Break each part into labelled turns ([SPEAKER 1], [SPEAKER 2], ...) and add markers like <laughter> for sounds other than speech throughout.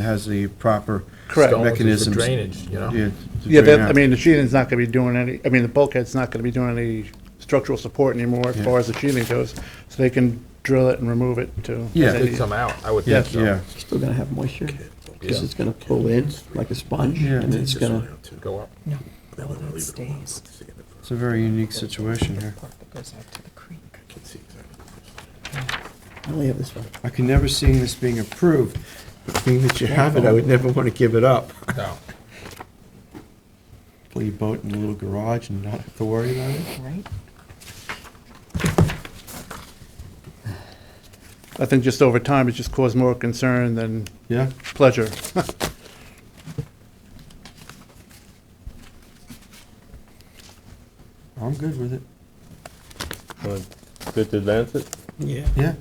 [SPEAKER 1] has the proper
[SPEAKER 2] Correct.
[SPEAKER 3] Stone is for
[SPEAKER 1] mechanisms.
[SPEAKER 3] Drainage, you know?
[SPEAKER 1] Yeah, to
[SPEAKER 2] Yeah,
[SPEAKER 1] drain
[SPEAKER 2] but, I
[SPEAKER 1] out.
[SPEAKER 2] mean, the sheathing's not gonna be doing any, I mean, the bulkhead's not gonna be doing any structural support anymore as
[SPEAKER 1] Yeah.
[SPEAKER 2] far as the sheathing goes, so they can drill it and remove it to.
[SPEAKER 1] Yeah.
[SPEAKER 3] It'd come out, I would think
[SPEAKER 2] Yes.
[SPEAKER 3] so.
[SPEAKER 1] Yeah,
[SPEAKER 4] Still gonna have moisture, because
[SPEAKER 3] Yeah.
[SPEAKER 4] it's gonna pull in like a sponge,
[SPEAKER 1] Yeah.
[SPEAKER 4] and it's gonna,
[SPEAKER 3] Go up.
[SPEAKER 5] No, the one that stays.
[SPEAKER 1] it's a very unique situation here.
[SPEAKER 5] Part that goes out to the creek.
[SPEAKER 4] I only have this one.
[SPEAKER 1] I can never see this being approved, but being that you have it, I would never want to give it up. <laughs>
[SPEAKER 3] No.
[SPEAKER 1] Play your boat in a little garage and not have to worry about it.
[SPEAKER 5] Right?
[SPEAKER 2] I think just over time, it's just caused more concern than
[SPEAKER 1] Yeah,
[SPEAKER 2] pleasure.
[SPEAKER 1] I'm good with it.
[SPEAKER 6] Good to advance it?
[SPEAKER 4] Yeah.
[SPEAKER 1] Yeah,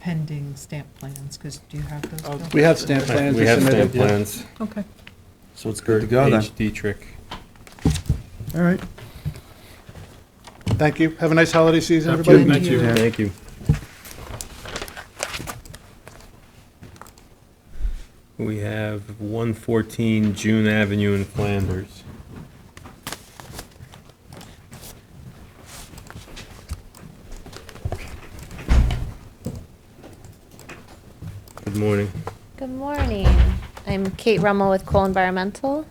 [SPEAKER 5] Pending stamp plans, because do you have those? Bill?
[SPEAKER 2] We have stamp plans.
[SPEAKER 6] We have
[SPEAKER 2] submitted.
[SPEAKER 6] stamp plans.
[SPEAKER 5] Okay.
[SPEAKER 1] so it's good to go then.
[SPEAKER 6] HD trick.
[SPEAKER 1] All right.
[SPEAKER 2] Thank you. Have a nice holiday season,
[SPEAKER 5] you.
[SPEAKER 2] everybody.
[SPEAKER 5] Thank you.
[SPEAKER 1] Yeah.
[SPEAKER 6] Thank you. We have one fourteen June Avenue in Flanders. Good morning.
[SPEAKER 7] Good morning. I'm Kate Rummel with Cole Environmental.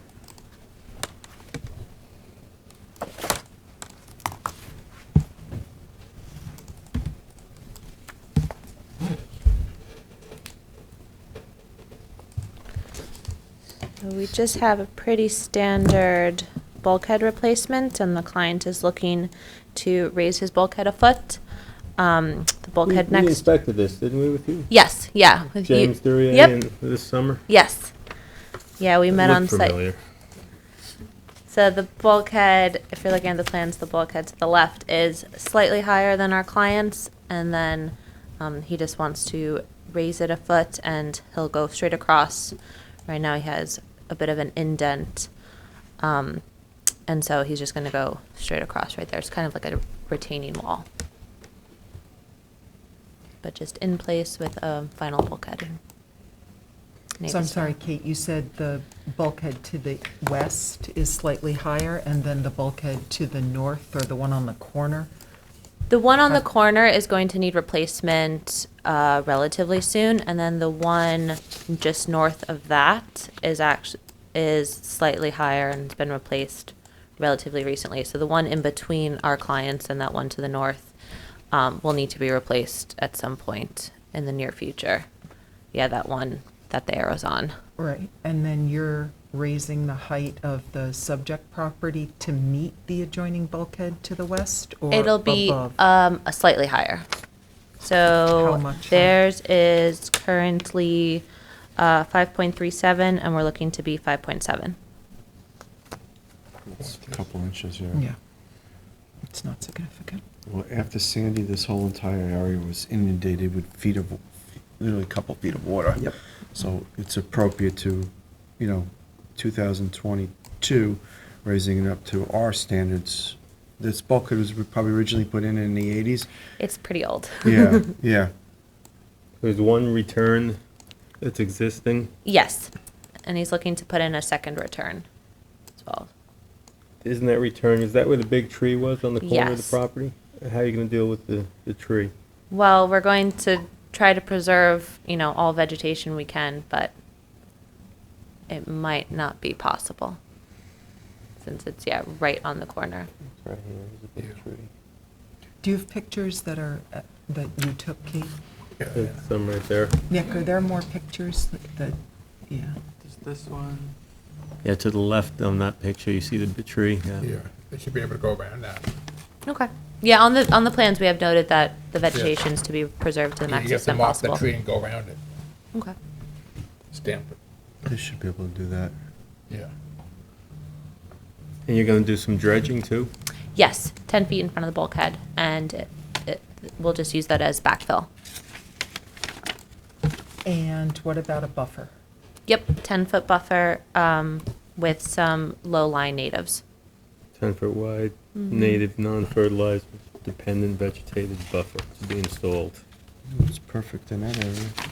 [SPEAKER 7] So We just have a pretty standard bulkhead replacement, and the client is looking to raise his bulkhead a foot. Um, The bulkhead
[SPEAKER 6] We
[SPEAKER 7] next,
[SPEAKER 6] inspected this, didn't we, with you?
[SPEAKER 7] yes, yeah. with you-
[SPEAKER 6] James Duryea
[SPEAKER 7] Yep.
[SPEAKER 6] in- this summer?
[SPEAKER 7] Yes. Yeah, we met
[SPEAKER 6] Looked
[SPEAKER 7] on site.
[SPEAKER 6] familiar.
[SPEAKER 7] So the bulkhead, if you're looking at the plans, the bulkhead to the left is slightly higher than our clients, and then um, he just wants to raise it a foot, and he'll go straight across. Right now, he has a bit of an indent, um, and so he's just going to go straight across right there. It's kind of like a retaining wall, but just in place with a final bulkhead.
[SPEAKER 5] So I'm sorry, Kate, you said the bulkhead to the west is slightly higher, and then the bulkhead to the north, or the one on the corner?
[SPEAKER 7] The one on the
[SPEAKER 5] Okay.
[SPEAKER 7] corner is going to need replacement uh, relatively soon, and then the one just north of that is actually is slightly higher and has been replaced relatively recently. So the one in between our clients and that one to the north um, will need to be replaced at some point in the near future. Yeah, that one that the arrow's on.
[SPEAKER 5] Right. And then you're raising the height of the subject property to meet the adjoining bulkhead to the west, or
[SPEAKER 7] It'll be
[SPEAKER 5] above?
[SPEAKER 7] um, a slightly higher.
[SPEAKER 5] How
[SPEAKER 7] So
[SPEAKER 5] much higher?
[SPEAKER 7] theirs is currently uh, 5.37, and we're looking to be 5.7.
[SPEAKER 1] It's a couple inches here.
[SPEAKER 5] Yeah. It's not significant.
[SPEAKER 1] Well, after Sandy, this whole entire area was inundated with feet of, literally a couple feet of water.
[SPEAKER 4] Yep.
[SPEAKER 1] So it's appropriate to, you know, 2022, raising it up to our standards. This bulkhead was probably originally put in in the 80s.
[SPEAKER 7] It's pretty old.
[SPEAKER 1] Yeah, yeah.
[SPEAKER 6] There's one return that's existing.
[SPEAKER 7] <laughs> Yes. And he's looking to put in a second return as well.
[SPEAKER 6] Isn't that return, is that where the big tree was on the corner of the
[SPEAKER 7] Yes.
[SPEAKER 6] property? How are you gonna deal with the, the tree?
[SPEAKER 7] Well, we're going to try to preserve, you know, all vegetation we can, but it might not be possible since it's, yeah, right on the corner.
[SPEAKER 6] Right here is a big tree.
[SPEAKER 5] Do you have pictures that are, uh, that you took, Kate?
[SPEAKER 6] There's some right there.
[SPEAKER 5] Nick, are there more pictures that- that, yeah?
[SPEAKER 6] Yeah, to the left on that picture, you see the big tree,
[SPEAKER 3] Yeah, they should be able to go around that.
[SPEAKER 7] Okay. Yeah, on the, on the plans, we have noted that the vegetation's to be preserved to the
[SPEAKER 3] You
[SPEAKER 7] max
[SPEAKER 3] get
[SPEAKER 7] extent
[SPEAKER 3] them off the
[SPEAKER 7] possible.
[SPEAKER 3] tree and go around it,
[SPEAKER 7] Okay.
[SPEAKER 3] stamp it,
[SPEAKER 1] They should be able to do that.
[SPEAKER 3] yeah.
[SPEAKER 6] And you're gonna do some dredging too?
[SPEAKER 7] Yes, ten feet in front of the bulkhead, and it, it, we'll just use that as backfill.
[SPEAKER 5] And what about a buffer?
[SPEAKER 7] Yep, ten-foot buffer, um, with some low-lying natives.
[SPEAKER 6] Ten foot wide,
[SPEAKER 7] Mm-hmm.
[SPEAKER 6] native, non-fertilized, dependent vegetated buffer to be installed.
[SPEAKER 1] It's perfect in that area.